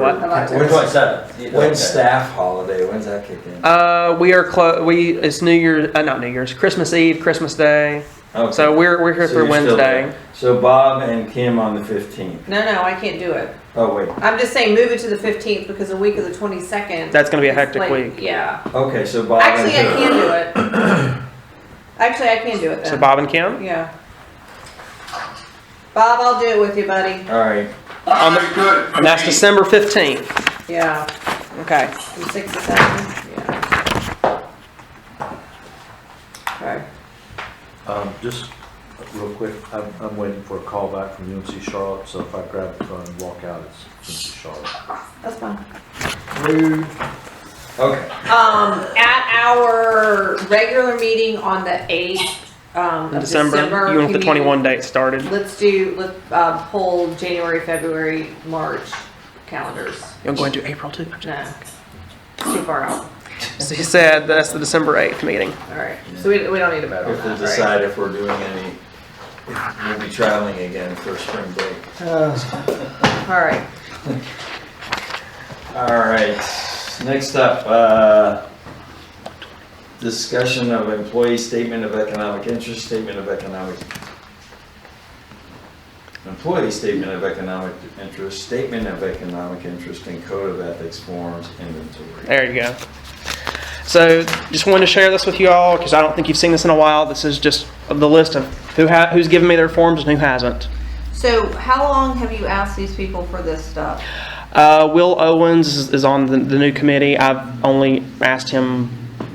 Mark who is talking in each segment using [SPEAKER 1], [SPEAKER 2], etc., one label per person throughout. [SPEAKER 1] What?
[SPEAKER 2] When's
[SPEAKER 3] When's
[SPEAKER 2] that?
[SPEAKER 3] When's staff holiday? When's that kick in?
[SPEAKER 1] Uh, we are clo- we it's New Year's uh, not New Year's Christmas Eve Christmas Day
[SPEAKER 3] Okay.
[SPEAKER 1] so we're we're here
[SPEAKER 3] So
[SPEAKER 1] through
[SPEAKER 3] you're still
[SPEAKER 1] Wednesday.
[SPEAKER 3] So Bob and Kim on the fifteenth.
[SPEAKER 4] No, no, I can't do it.
[SPEAKER 3] Oh, wait.
[SPEAKER 4] I'm just saying move it to the 15th because the week of the 22nd.
[SPEAKER 1] That's gonna be a
[SPEAKER 4] is
[SPEAKER 1] hectic
[SPEAKER 4] like-
[SPEAKER 1] week.
[SPEAKER 4] Yeah.
[SPEAKER 3] Okay, so Bob
[SPEAKER 4] Actually, I
[SPEAKER 3] and Kim.
[SPEAKER 4] can do it. Actually, I can do it
[SPEAKER 1] So
[SPEAKER 4] then.
[SPEAKER 1] Bob and Kim
[SPEAKER 4] Yeah. Bob, I'll do it with you, buddy.
[SPEAKER 3] All right.
[SPEAKER 5] All right, good.
[SPEAKER 1] and that's December fifteenth.
[SPEAKER 4] Yeah.
[SPEAKER 1] Okay,
[SPEAKER 4] From six to seven, yeah. Okay.
[SPEAKER 6] Um, just real quick, I'm, I'm waiting for a call back from UNC Charlotte, so if I grab the phone and walk out, it's UNC Charlotte.
[SPEAKER 4] That's fine.
[SPEAKER 3] Okay.
[SPEAKER 4] Um, at our regular meeting on the eighth, um,
[SPEAKER 1] in
[SPEAKER 4] of
[SPEAKER 1] December,
[SPEAKER 4] December.
[SPEAKER 1] you want the
[SPEAKER 4] can
[SPEAKER 1] twenty-one date started.
[SPEAKER 4] Let's do, let's, uh, pull January, February, March calendars.
[SPEAKER 1] You're going to April too.
[SPEAKER 4] No, too far out.
[SPEAKER 1] So he said that's the December eighth meeting.
[SPEAKER 4] All right, so we, we don't need to vote on
[SPEAKER 3] If we'll
[SPEAKER 4] that, right?
[SPEAKER 3] decide if we're doing any, if we'll be traveling again for spring break.
[SPEAKER 4] All right,
[SPEAKER 3] All right. Next up, uh, discussion of employee statement of economic interest, statement of economic employee statement of economic interest, statement of economic interest, and code of ethics forms inventory.
[SPEAKER 1] There you go. So just wanted to share this with you all because I don't think you've seen this in a while. This is just the list of who ha- who's given me their forms and who hasn't.
[SPEAKER 4] so how long have you asked these people for this stuff?
[SPEAKER 1] Uh, Will Owens is, is on the, the new committee. I've only asked him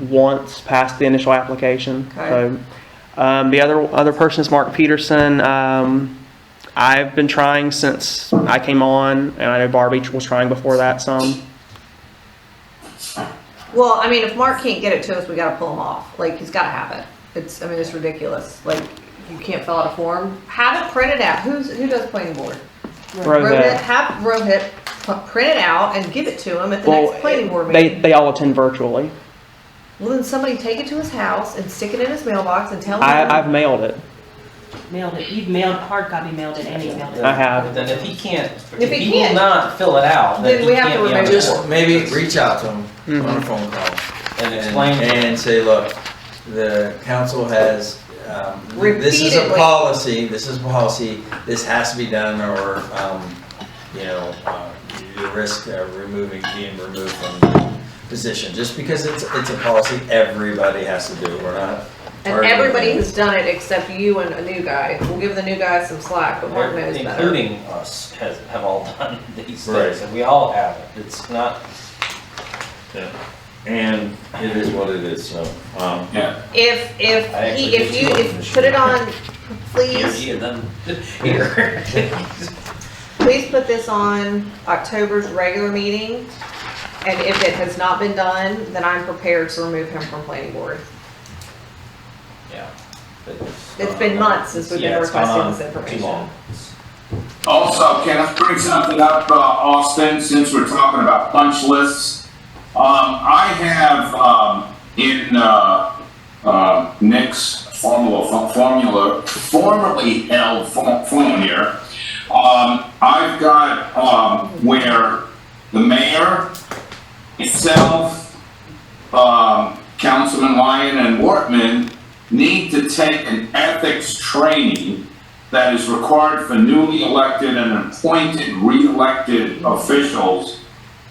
[SPEAKER 1] once past the initial application.
[SPEAKER 4] Okay.
[SPEAKER 1] So, um, the other other person is Mark Peterson. Um, I've been trying since I came on, and I know Barbie was trying before that some.
[SPEAKER 4] Well, I mean, if Mark can't get it to us, we gotta pull him off, like, he's gotta have it. It's, I mean, it's ridiculous, like, you can't fill out a form, have it printed out, who's, who does planning board? Rohit,
[SPEAKER 1] Rohit.
[SPEAKER 4] have Rohit p- print it out and give it to him at the next planning board
[SPEAKER 1] they
[SPEAKER 4] meeting.
[SPEAKER 1] they all attend virtually.
[SPEAKER 4] Well, then somebody take it to his house and stick it in his mailbox and tell him.
[SPEAKER 1] I, I've mailed it.
[SPEAKER 7] mailed it, you've mailed, hard copy mailed it, and emailed it.
[SPEAKER 1] I have.
[SPEAKER 2] Then if he can't,
[SPEAKER 4] If
[SPEAKER 2] if
[SPEAKER 4] he
[SPEAKER 2] he will
[SPEAKER 4] can't,
[SPEAKER 2] not fill it out,
[SPEAKER 4] then
[SPEAKER 2] then he
[SPEAKER 4] we have
[SPEAKER 2] can't
[SPEAKER 4] to
[SPEAKER 2] be on
[SPEAKER 4] remove
[SPEAKER 2] the
[SPEAKER 4] it.
[SPEAKER 3] Just
[SPEAKER 2] board.
[SPEAKER 3] maybe reach out to them on a phone call.
[SPEAKER 2] And
[SPEAKER 3] and-
[SPEAKER 2] explain to
[SPEAKER 3] And say, look, the council has, um, this is a
[SPEAKER 4] Repeatedly.
[SPEAKER 3] policy, this is policy, this has to be done or, um, you know, uh, you risk uh, removing, being removed from the position. Just because it's, it's a policy, everybody has to do, it. we're not.
[SPEAKER 4] And
[SPEAKER 3] arguing.
[SPEAKER 4] everybody has done it except you and a new guy. We'll give the new guy some slack, but Mark knows better.
[SPEAKER 2] Including us has, have all done these
[SPEAKER 3] Right.
[SPEAKER 2] things, and we all have it, it's not.
[SPEAKER 3] And it is what it is, so, um,
[SPEAKER 5] Yeah,
[SPEAKER 4] If, if
[SPEAKER 2] I actually
[SPEAKER 4] he, if
[SPEAKER 2] did
[SPEAKER 4] you,
[SPEAKER 2] two of them
[SPEAKER 4] if,
[SPEAKER 2] this
[SPEAKER 4] put it
[SPEAKER 2] year.
[SPEAKER 4] on, please,
[SPEAKER 2] Here, and then, here.
[SPEAKER 4] please put this on October's regular meeting. And if it has not been done, then I'm prepared to remove him from planning board.
[SPEAKER 2] Yeah.
[SPEAKER 4] It's been months since we've been
[SPEAKER 2] Uh, Yeah, it's gone
[SPEAKER 4] requesting
[SPEAKER 2] on
[SPEAKER 4] this information.
[SPEAKER 2] Too long.
[SPEAKER 5] also, can I bring something up, uh, Austin, since we're talking about punch lists? Um, I have, um, in, uh, uh, Nick's formula, fo- formula, formerly held fo- form here, um, I've got, um, where the mayor, itself, um, Councilman Lyon and Wortman need to take an ethics training that is required for newly elected and appointed, re-elected officials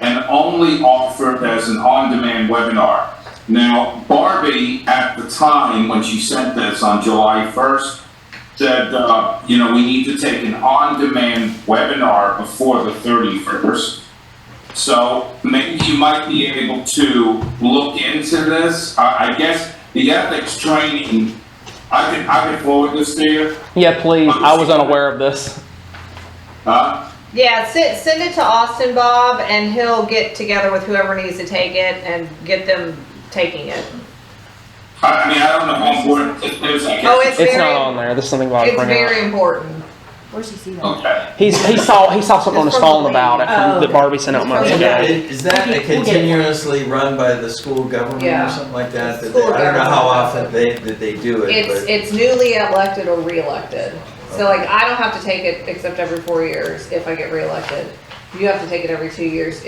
[SPEAKER 5] and only offered as an on-demand webinar. Now, Barbie, at the time when she sent this on July 1st, said, uh, you know, we need to take an on-demand webinar before the 31st. So maybe you might be able to look into this. I, I guess the ethics training, I could, I could forward this to you.
[SPEAKER 1] Yeah, please. I was unaware of this.
[SPEAKER 5] Uh,
[SPEAKER 4] Yeah, send, send it to Austin Bob and he'll get together with whoever needs to take it and get them taking it.
[SPEAKER 5] I, I mean, I don't know how important it is, I guess.
[SPEAKER 4] Oh, it's
[SPEAKER 1] It's
[SPEAKER 4] very,
[SPEAKER 1] not on there. There's something about it.
[SPEAKER 4] it's very important.
[SPEAKER 7] Where's he see that?
[SPEAKER 5] Okay.
[SPEAKER 1] He's, he saw he saw something on his phone about it
[SPEAKER 7] Oh.
[SPEAKER 1] from, that Barbie sent out months
[SPEAKER 3] Is that-
[SPEAKER 1] ago.
[SPEAKER 3] Is that a continuously run by the school government or
[SPEAKER 4] Yeah.
[SPEAKER 3] something like that? That they-
[SPEAKER 4] School
[SPEAKER 3] I don't know
[SPEAKER 4] government.
[SPEAKER 3] how often they, that they do it,
[SPEAKER 4] It's,
[SPEAKER 3] but.
[SPEAKER 4] it's newly elected or re-elected. So like, I don't have to take it except every four years if I get re-elected. you have to take it every two years